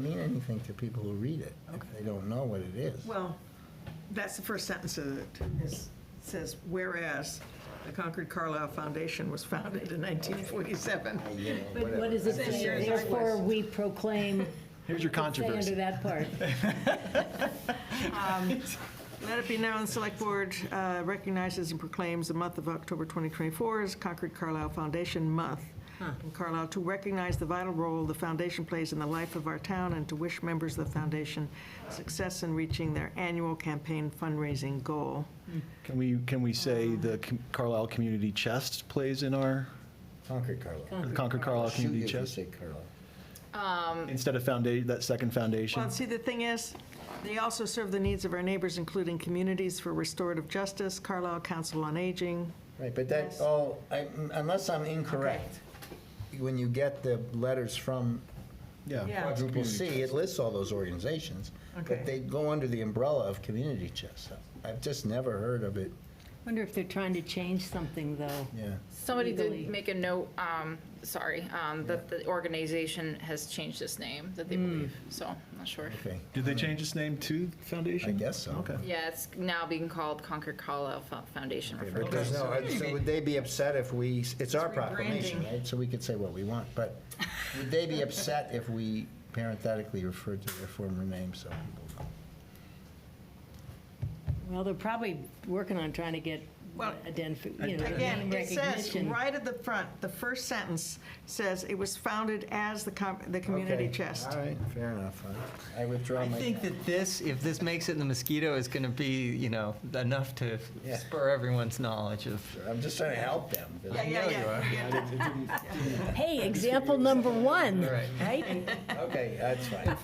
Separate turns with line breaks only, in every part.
mean anything to people who read it if they don't know what it is.
Well, that's the first sentence of it. It says, whereas the Concord Carlisle Foundation was founded in 1947.
You know,
But
whatever.
what is it
Same
say?
years
Therefore,
afterwards.
we proclaim.
Here's your
Stay under
controversy.
that part.
Let it be known, the Select Board uh, recognizes and proclaims the month of October 2024 as Concord Carlisle Foundation Month in Carlisle to recognize the vital role the foundation plays in the life of our town and to wish members of the foundation success in reaching their annual campaign fundraising goal.
Can we, can we say the Com- Carlisle Community Chest plays in our,
Concord Carlisle.
the Concord Carlisle
Shoot you
Community
if you
Chest?
say Carlisle.
Instead of foundation, that second foundation?
Well, see, the thing is, they also serve the needs of our neighbors, including communities for restorative justice, Carlisle Council on Aging.
Right, but that,
Yes.
oh, I- unless I'm incorrect, when you get the letters from
Yeah.
quadruple C, it lists all those organizations,
Okay.
but they go under the umbrella of community chest. I've just never heard of it,
Wonder if they're trying to change something, though.
yeah.
Somebody
Legally.
did make a note, um, sorry, um, that the organization has changed its name, that they believe, so, I'm not sure.
Okay,
Did they change its name to
I
Foundation?
guess so.
Okay.
Yeah, it's now being called Concord Carlisle Fo- Foundation referral.
Because, no, I- so would they be upset if we, it's our proclamation,
rebranding.
right? So we could say what we want, but would they be upset if we parenthetically referred to their former name so people
Well, they're probably working on trying to get
Well,
identification, you know, name
Again, it says,
recognition.
right at the front, the first sentence says, it was founded as the, com- the community
Okay,
chest.
All right, fair enough. I- I withdraw
I
my.
think that this, if this makes it in the mosquito, is going to be, you know, enough to
Yeah.
spur everyone's knowledge of.
I'm just trying to help them.
Yeah, yeah,
know you
yeah,
are.
yeah.
Hey, example number one, right?
Okay, that's fine.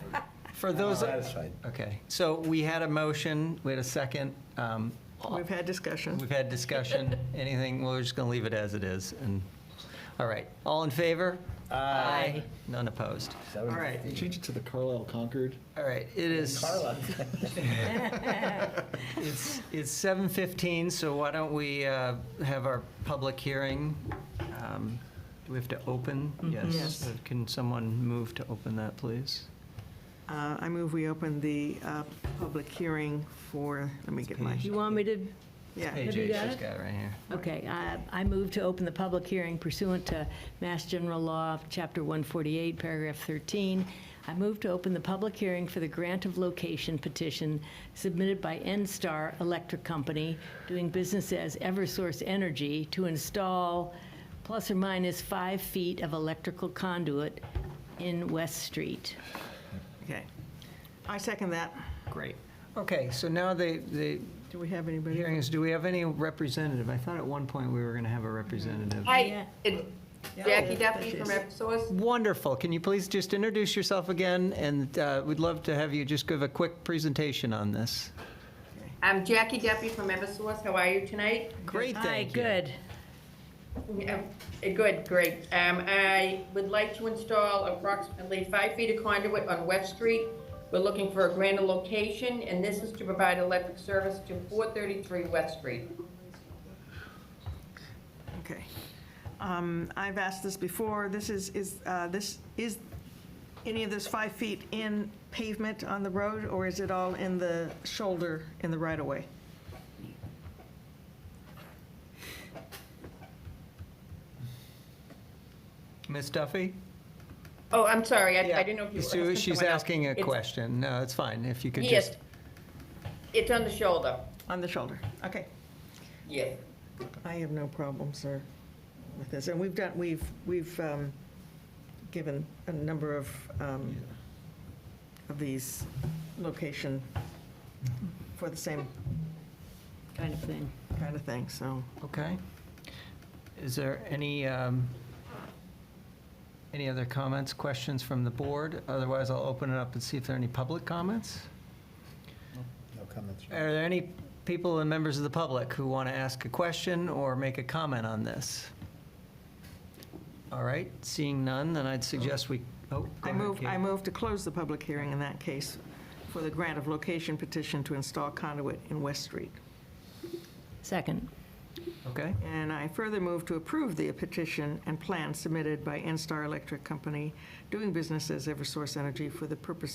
For those,
That's fine.
okay, so we had a motion, we had a second, um,
We've had discussion.
we've had discussion, anything, we're just going to leave it as it is, and, all right, all in favor? Aye. None opposed.
All
right.
Change it to the Carlisle Concord.
All right, it is,
Carla,
it's it's 7:15, so why don't we uh, have our public hearing? Um, Do we have to open?
Yes.
Yes. Uh, Can someone move to open that, please?
Uh, I move we open the uh, public hearing for, let me get my,
You want me to,
yeah.
Page.
Hey,
you
Jay,
got
she's
it?
got it right here.
okay, I, I move to open the public hearing pursuant to Mass General Law, Chapter 148, Paragraph 13. I move to open the public hearing for the grant of location petition submitted by NSTAR Electric Company, doing business as Eversource Energy, to install plus or minus five feet of electrical conduit in West Street.
Okay. I second that.
Great. Okay, so now the, the
Do we have anybody?
hearing is, do we have any representative? I thought at one point we were going to have a representative.
Yeah.
Hi, it's Jackie
Oh,
Duffy from Eversource.
Wonderful. Can you please just introduce yourself again? And uh, we'd love to have you just give a quick presentation on this.
I'm Um, Jackie Duffy from Eversource. How are you tonight?
Great,
Hi,
thank you.
good.
Yeah, uh, Good, great. Um, I would like to install approximately five feet of conduit on West Street. We're looking for a grander location, and this is to provide electric service to 433 West Street.
Okay. Um, I've asked this before, this is, is, uh, this, is any of this five feet in pavement on the road, or is it all in the shoulder in the right-of-way?
Ms. Duffy?
Oh, I'm sorry, I I didn't know if you were asking
Sue, She's
someone else.
asking a
It's-
question. No, it's fine. If you could
Yes.
just,
It's on the shoulder,
On the shoulder, okay.
yes.
I have no problem, sir, with this, and we've done, we've, we've um, given a number of, um, of these location for the same
Kind of thing.
kind of thing, so.
okay. Is there any, um, any other comments, questions from the board? Otherwise, I'll open it up and see if there are any public comments.
No comments.
Are there any people and members of the public who want to ask a question or make a comment on this? All right, seeing none, then I'd suggest we, oh, go
I
ahead,
move,
Kate.
I move to close the public hearing in that case for the grant of location petition to install conduit in West Street.
Second.
Okay?
And I further move to approve the petition and plan submitted by NSTAR Electric Company, doing business as Eversource Energy, for the purpose of